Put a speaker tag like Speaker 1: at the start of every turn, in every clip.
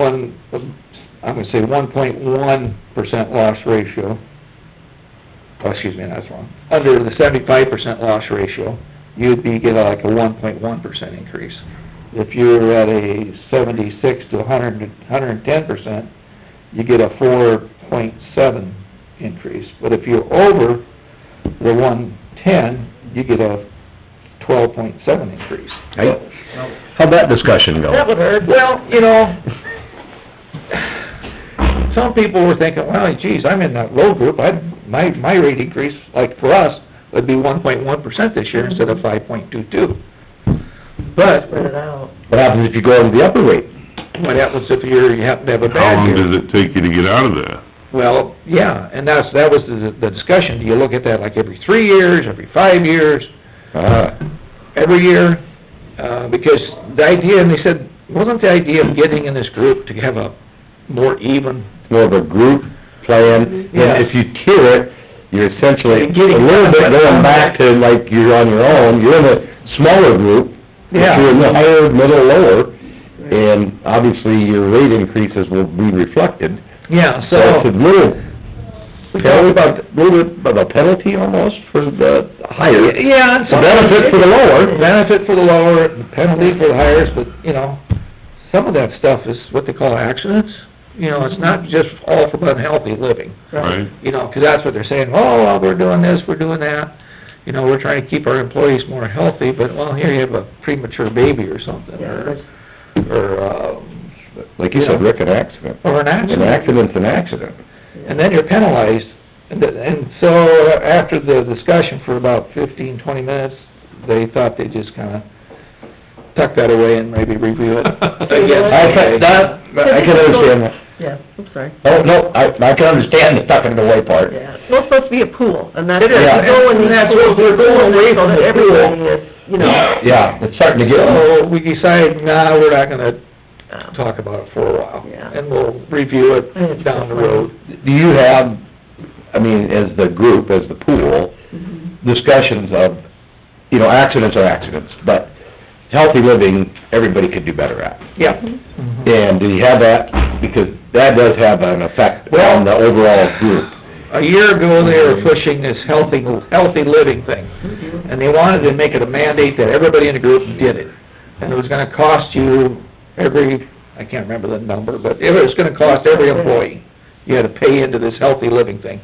Speaker 1: one, I'm gonna say one point one percent loss ratio. Oh, excuse me, that's wrong. Under the seventy-five percent loss ratio, you'd be getting like a one point one percent increase. If you're at a seventy-six to hundred, hundred and ten percent, you get a four point seven increase. But if you're over the one-ten, you get a twelve point seven increase.
Speaker 2: Right? How'd that discussion go?
Speaker 1: That would hurt. Well, you know, some people were thinking, well, geez, I'm in that low group, I, my, my rate increase, like for us, would be one point one percent this year instead of five point two two. But
Speaker 3: Spread it out.
Speaker 2: What happens if you go into the upper rate?
Speaker 1: what happens if you're, you happen to have a
Speaker 4: How
Speaker 1: bad
Speaker 4: long
Speaker 1: year?
Speaker 4: does it take you to get out of that?
Speaker 1: Well, yeah, and that's, that was the, the discussion, do you look at that like every three years, every five years?
Speaker 2: Ah,
Speaker 1: every year, uh, because the idea, and they said, wasn't the idea of getting in this group to have a more even?
Speaker 2: more of a group plan,
Speaker 1: Yeah.
Speaker 2: and if you tier it, you're essentially
Speaker 1: You're getting
Speaker 2: a little bit
Speaker 1: contact on
Speaker 2: going back to like you're on your own, you're in a smaller group, but
Speaker 1: Yeah.
Speaker 2: you're in the higher, middle, lower, and obviously your rate increases will be reflected.
Speaker 1: Yeah,
Speaker 2: So it's a
Speaker 1: so,
Speaker 2: little, tell about, little bit of a penalty almost for the higher.
Speaker 1: yeah. and
Speaker 2: The benefit for the lower.
Speaker 1: Benefit for the lower, the penalty for the highest, but, you know, some of that stuff is what they call accidents. You know, it's not just all from unhealthy living,
Speaker 4: Right?
Speaker 1: you know, 'cause that's what they're saying, oh, well, we're doing this, we're doing that. You know, we're trying to keep our employees more healthy, but, well, here you have a premature baby or something,
Speaker 3: Yeah,
Speaker 1: or,
Speaker 3: that's-
Speaker 1: or, um,
Speaker 2: Like you said, Rick, an accident.
Speaker 1: or an accident.
Speaker 2: An accident's an accident.
Speaker 1: and then you're penalized. And, th- and so after the discussion for about fifteen, twenty minutes, they thought they'd just kinda tuck that away and maybe review it. again.
Speaker 2: I can, that, I can understand that.
Speaker 3: Yeah, I'm sorry,
Speaker 2: Oh, no, I, I can understand the tucking it away part.
Speaker 3: yeah. Well, it's supposed to be a pool, and that's.
Speaker 1: It is,
Speaker 3: you go in
Speaker 1: and that's
Speaker 3: these
Speaker 1: what we're
Speaker 3: pools,
Speaker 1: going away
Speaker 3: so
Speaker 1: from
Speaker 3: that
Speaker 1: the pool.
Speaker 3: Everybody is, you know,
Speaker 2: Yeah, it's starting to get,
Speaker 1: So we decided, nah, we're not gonna
Speaker 3: um,
Speaker 1: talk about it for a while.
Speaker 3: Yeah.
Speaker 1: And we'll review
Speaker 3: I think
Speaker 1: it
Speaker 3: it's
Speaker 1: down the
Speaker 3: just-
Speaker 1: road.
Speaker 2: do you have, I mean, as the group, as the pool,
Speaker 3: Oh.
Speaker 1: Mm-hmm.
Speaker 3: Mm-hmm.
Speaker 2: discussions of, you know, accidents are accidents, but healthy living, everybody could do better at.
Speaker 1: Yeah.
Speaker 2: And do you have that? Because that does have an effect on the overall group.
Speaker 1: A year ago, they were pushing this healthy, healthy living thing. And they wanted to make it a mandate that everybody in the group did it. And it was gonna cost you every, I can't remember the number, but it was gonna cost every employee. You had to pay into this healthy living thing.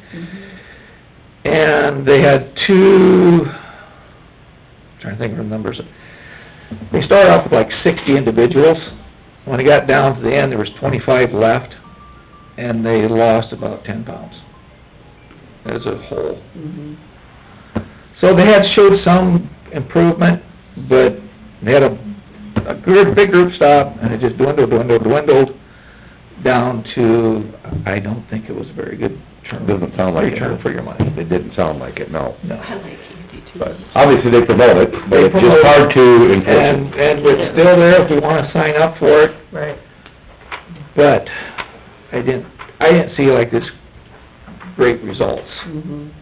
Speaker 1: And they had two, trying to think of the numbers. They started off with like sixty individuals. When it got down to the end, there was twenty-five left, and they lost about ten pounds as a whole.
Speaker 3: Mm-hmm.
Speaker 1: So they had showed some improvement, but they had a, a group, big group stop, and it just dwindled, dwindled, dwindled down to, I don't think it was a very good term.
Speaker 2: Doesn't sound like it.
Speaker 1: Return for your money,
Speaker 2: It didn't sound like it, no.
Speaker 1: no.
Speaker 2: But obviously they promote it, but
Speaker 1: They
Speaker 2: it's just
Speaker 1: promote it.
Speaker 2: hard to enforce
Speaker 1: And, and it's still there if we wanna sign up for it,
Speaker 3: right.
Speaker 1: but I didn't, I didn't see like this great results.
Speaker 2: Mm-hmm.
Speaker 3: mhm.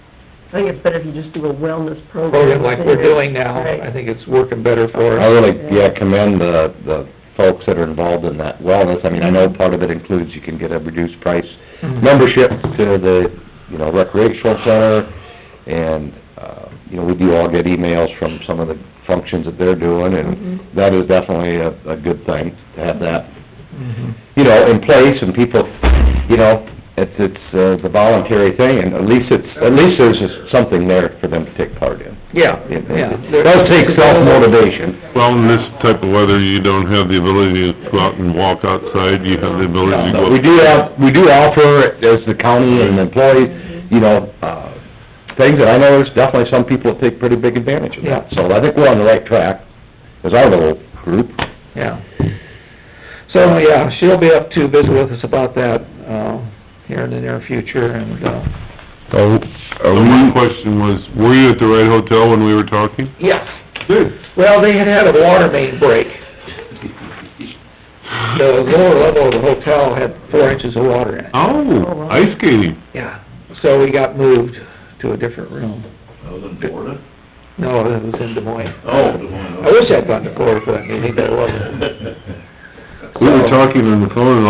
Speaker 3: I think it's better if you just do a wellness program.
Speaker 1: Program Oh, like we're doing now,
Speaker 3: Right.
Speaker 1: I think it's working better for
Speaker 2: it. I
Speaker 1: us.
Speaker 2: really, yeah, commend the, the folks that are involved in that wellness. I mean, I know part of it includes you can get a reduced price
Speaker 1: Mhm.
Speaker 2: membership to the, you know, recreational center, and, uh, you know, we do all get emails from some of the functions that they're doing, and
Speaker 1: Mm-hmm.
Speaker 2: that is definitely a, a good thing, to have that
Speaker 1: Mhm.
Speaker 2: you know, in place and people, you know, it's, it's, uh, the voluntary thing and at least it's, at least there's just something there for them to take part in.
Speaker 1: Yeah,
Speaker 2: It-
Speaker 1: yeah.
Speaker 2: It does take self-motivation.
Speaker 4: Well, in this type of weather, you don't have the ability to go out and walk outside, you have the ability to
Speaker 2: But
Speaker 4: go...
Speaker 2: We do have, we do offer, as the county and employees, you know, uh, things that I know there's definitely some people that take pretty big advantage of that. So I think we're on the right track, as our little group.
Speaker 1: Yeah. So, yeah, she'll be up to visit with us about that, uh, here in the near future, and, uh,
Speaker 4: Oh, The one question was, were you at the right hotel when we were talking?
Speaker 1: yes.
Speaker 4: Good.
Speaker 1: Well, they had had a water main break. The lower level of the hotel had four inches of water in it.
Speaker 3: Oh, wow.
Speaker 4: Oh, ice skating.
Speaker 1: Yeah, so we got moved to a different room.
Speaker 5: That was in Florida?
Speaker 1: No, it was in Des Moines.
Speaker 5: Oh, Des Moines.
Speaker 1: I wish I'd gone to Florida for that meeting, but I wasn't.
Speaker 4: We were talking on the phone and